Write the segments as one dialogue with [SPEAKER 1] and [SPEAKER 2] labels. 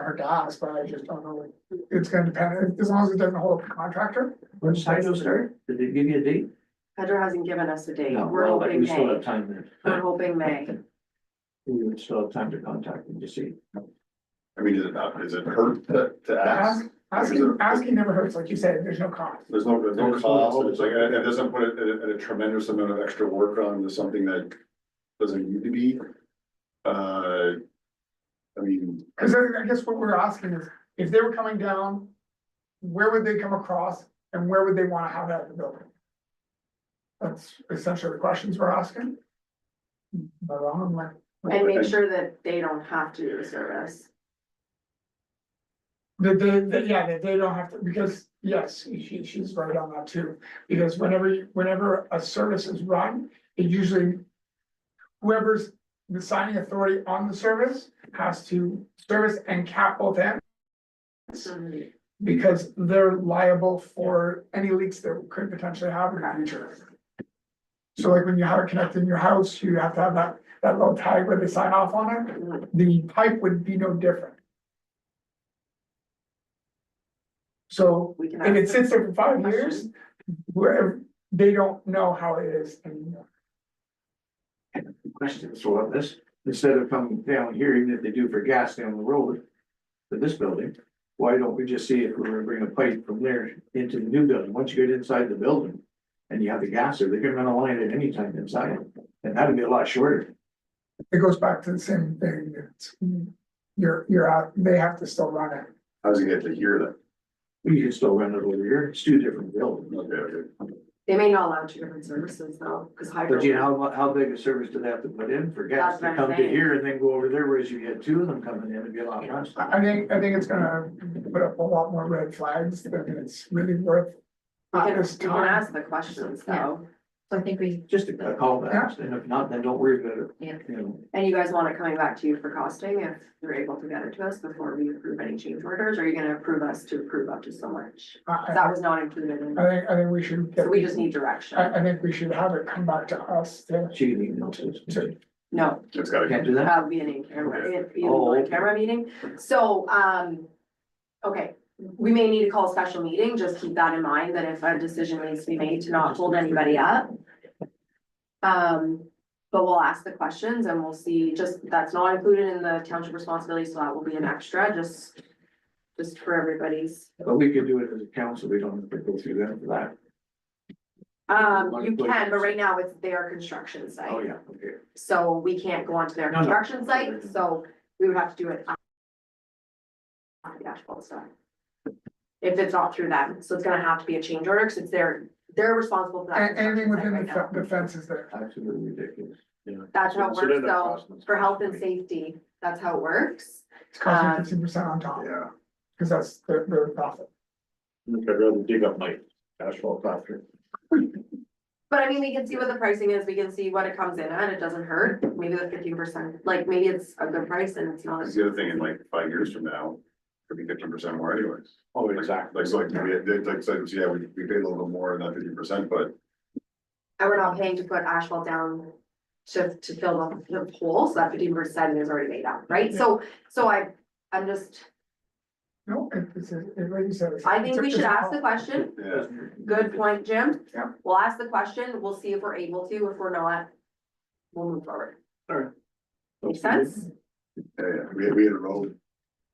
[SPEAKER 1] her docs, but I just don't know. It's gonna depend, as long as it doesn't hold up the contractor.
[SPEAKER 2] When's Hydro start? Did they give you a date?
[SPEAKER 3] Pedro hasn't given us a date.
[SPEAKER 2] No,
[SPEAKER 3] We're Uh-huh.
[SPEAKER 2] well, but
[SPEAKER 3] hoping
[SPEAKER 2] we still
[SPEAKER 3] May.
[SPEAKER 2] have time then.
[SPEAKER 3] We're hoping May.
[SPEAKER 2] We would still have time to contact them to see.
[SPEAKER 4] I mean, is it not, is it hurt to, to ask?
[SPEAKER 1] Ask- Asking, asking never hurts, like you said, there's no cost.
[SPEAKER 4] There's no, there's no
[SPEAKER 2] There's no-
[SPEAKER 4] cost, it's like, it it doesn't put it at a- at a tremendous amount of extra work on to something that doesn't need to be. Uh, I mean,
[SPEAKER 1] Cause I I guess what we're asking is, if they were coming down, where would they come across and where would they wanna have that in the building? That's essentially the questions we're asking. Am I wrong? Am I-
[SPEAKER 3] And make sure that they don't have to do the service.
[SPEAKER 1] That they, that, yeah, that they don't have to, because, yes, she, she's right on that too, because whenever, you- whenever a service is run, it usually. Whoever's the signing authority on the service has to service and cap both ends, because they're liable for any leaks that could potentially happen in the future. So like when you have it connected in your house, you have to have that, that little tag where they sign off on it, the pipe would be no different. So
[SPEAKER 3] We can
[SPEAKER 1] if it
[SPEAKER 3] ask
[SPEAKER 1] sits there for five
[SPEAKER 3] Question.
[SPEAKER 1] years, where they don't know how it is anymore.
[SPEAKER 2] Questions about this, instead of coming down here, even if they do for gas down the road to this building, why don't we just see if we're gonna bring a pipe from there into the new building? Once you get inside the building and you have the gas there, they can run a line at any time inside, and that'd be a lot shorter.
[SPEAKER 1] It goes back to the same thing, it's, you're, you're out, they have to still run it.
[SPEAKER 4] how does it get to here
[SPEAKER 2] We can still run it over here, it's two different buildings.
[SPEAKER 4] then? Okay, okay.
[SPEAKER 3] They may not allow two different services though, because hydro.
[SPEAKER 2] But you know, how, mu- how big a service do they have to put in for gas
[SPEAKER 3] That's what
[SPEAKER 2] to
[SPEAKER 3] I'm
[SPEAKER 2] come to
[SPEAKER 3] saying.
[SPEAKER 2] here and then go over there, whereas you had two of them coming in, it'd be a lot less.
[SPEAKER 1] I, I think, I think it's gonna put up a lot more red flags than it's really worth.
[SPEAKER 3] We
[SPEAKER 1] At
[SPEAKER 3] can,
[SPEAKER 1] this
[SPEAKER 3] we can
[SPEAKER 1] time,
[SPEAKER 3] ask the questions though.
[SPEAKER 5] So I think we,
[SPEAKER 2] Just a a call back, and if not, then don't worry about it.
[SPEAKER 5] Yeah.
[SPEAKER 2] You know,
[SPEAKER 3] And you guys want it coming back to you for costing if you're able to get it to us before we approve any change orders? Or are you gonna approve us to approve up to so much?
[SPEAKER 1] I,
[SPEAKER 3] 'Cause
[SPEAKER 1] I,
[SPEAKER 3] That was not included in,
[SPEAKER 1] I think, I think we should. get-
[SPEAKER 3] so we just need
[SPEAKER 1] I,
[SPEAKER 3] direction.
[SPEAKER 1] I think we should have it come back to us to,
[SPEAKER 2] She can email to.
[SPEAKER 3] No,
[SPEAKER 4] It's gotta,
[SPEAKER 2] Can't do that?
[SPEAKER 3] That'll be an in-camera, it'd be
[SPEAKER 2] Oh,
[SPEAKER 3] an
[SPEAKER 2] okay.
[SPEAKER 3] in-camera meeting, so, um, okay. We may need to call a special meeting, just keep that in mind, that if a decision needs to be made to not hold anybody up. Um, but we'll ask the questions and we'll see, just, that's not included in the township responsibility, so that will be an extra, just. Just for everybody's,
[SPEAKER 2] But we could do it as a council, we don't have to go through that for that.
[SPEAKER 3] um, you can, but right now it's their construction site.
[SPEAKER 2] Oh, yeah, okay.
[SPEAKER 3] So we can't go onto their
[SPEAKER 2] No, no.
[SPEAKER 3] construction site, so we would have to do it. on- on the asphalt side. If it's not through them, so it's gonna have to be a change order, because it's their, they're responsible for that.
[SPEAKER 1] a- anything
[SPEAKER 3] construction site
[SPEAKER 1] within the
[SPEAKER 3] right now.
[SPEAKER 1] fe- the fences there.
[SPEAKER 2] Absolutely ridiculous.
[SPEAKER 3] That's how it
[SPEAKER 4] So then
[SPEAKER 3] works,
[SPEAKER 4] that
[SPEAKER 3] though,
[SPEAKER 4] costs us-
[SPEAKER 3] for health and safety, that's how it works.
[SPEAKER 1] It's costing
[SPEAKER 3] Um,
[SPEAKER 1] fifteen percent on top,
[SPEAKER 4] yeah.
[SPEAKER 1] because that's their, their profit.
[SPEAKER 4] I'd rather dig up my asphalt after.
[SPEAKER 3] But I mean, we can see what the pricing is, we can see what it comes in at, it doesn't hurt, maybe the fifteen percent, like, maybe it's a good price and it's not.
[SPEAKER 4] Cause the other thing, in like five years from now, it'll be fifteen percent more anyways.
[SPEAKER 2] Oh,
[SPEAKER 4] Like, so like, we, had- like, so, yeah, we, we paid a little bit more than that fifty percent, but
[SPEAKER 3] And we're not paying to put asphalt down to, to fill up the hole, so that fifteen percent is already made up, right? So, so I, I'm just,
[SPEAKER 1] No, it- it's, it, like you said. it's-
[SPEAKER 3] I think
[SPEAKER 1] it's a-
[SPEAKER 3] we should
[SPEAKER 1] it's a-
[SPEAKER 3] ask the question.
[SPEAKER 4] yeah.
[SPEAKER 3] Good point, Jim.
[SPEAKER 1] Yeah.
[SPEAKER 3] We'll ask the question, we'll see if we're able to, if we're not, we'll move forward. Make sense?
[SPEAKER 4] Yeah, yeah, we had, we had a road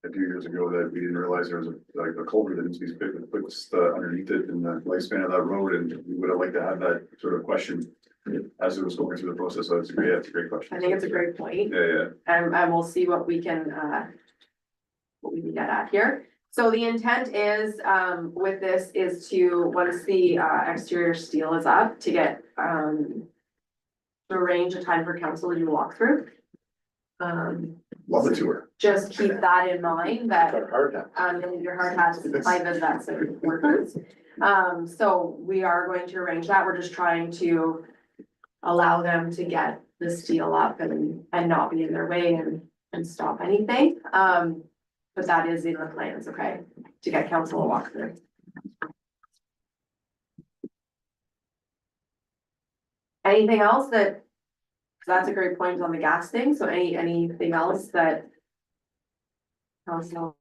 [SPEAKER 4] a few years ago that we didn't realize there was a, like a culvert that needs to be fixed, fixed uh, underneath it and the lifespan of that road, and we would have liked to have that sort of question as it was going through the process, so it's a great, that's a great question.
[SPEAKER 3] I think it's a great point.
[SPEAKER 4] Yeah, yeah,
[SPEAKER 3] and, and we'll see what we can, uh, what we can get at here. So the intent is, um, with this is to, once the, uh, exterior steel is up, to get, um, to arrange a time for council to do a walkthrough. Um,
[SPEAKER 4] love the tour.
[SPEAKER 3] just keep that in mind that,
[SPEAKER 2] Hard hat.
[SPEAKER 3] um, you'll need your hard hats, private vets and workers. Um, so we are going to arrange that. We're just trying to allow them to get the steel up and, and not be in their way and, and stop anything. Um, but that is in the plans, okay, to get council to walk through. Anything else that, that's a great point on the gas thing. So any, anything else that Council